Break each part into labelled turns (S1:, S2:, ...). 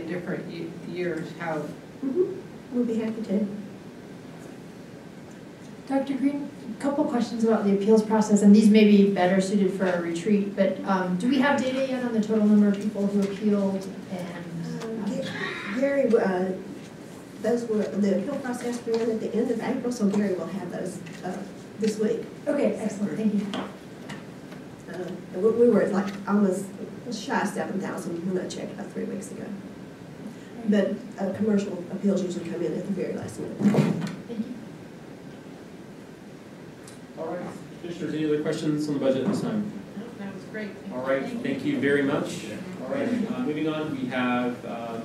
S1: different ye- years, how,
S2: Mm-hmm. We'll be happy to.
S3: Dr. Green, a couple questions about the appeals process, and these may be better suited for a retreat, but um, do we have data yet on the total number of people who appealed
S2: Um,
S3: and?
S2: Ga- Gary, uh, those were, the appeal process began at the end of April, so Gary will have those uh, this week.
S3: Okay, excellent, thank you.
S2: Uh, And we we were at like almost shy of seven thousand when I checked about three weeks ago. But uh, commercial appeals usually come in at the very last minute.
S3: Thank you.
S4: All right, commissioners, any other questions on the budget this time?
S1: that was great.
S4: All right, thank you very much. All right, uh, moving on, we have um,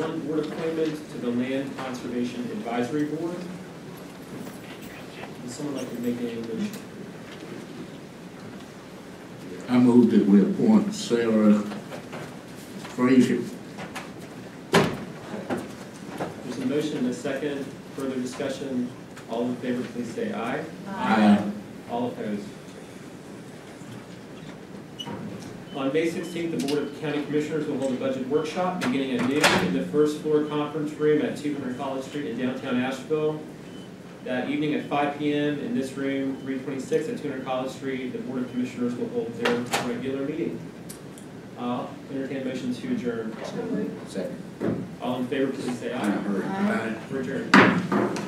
S4: one board appointment to the Land Conservation Advisory Board. Would someone like to make a motion?
S5: I move that we appoint Sarah Frazier.
S4: There's a motion and a second, further discussion. All in favor, please say aye.
S5: Aye.
S4: All opposed? On May sixteenth, the Board of County Commissioners will hold a budget workshop beginning at noon in the first floor conference room at two hundred College Street in downtown Asheville. That evening at five P M in this room, three twenty-six at two hundred College Street, the Board of Commissioners will hold their regular meeting. Uh, entertain a motion to adjourn.
S5: Second.
S4: All in favor, please say
S5: I
S4: aye.
S5: heard.
S4: For adjourn.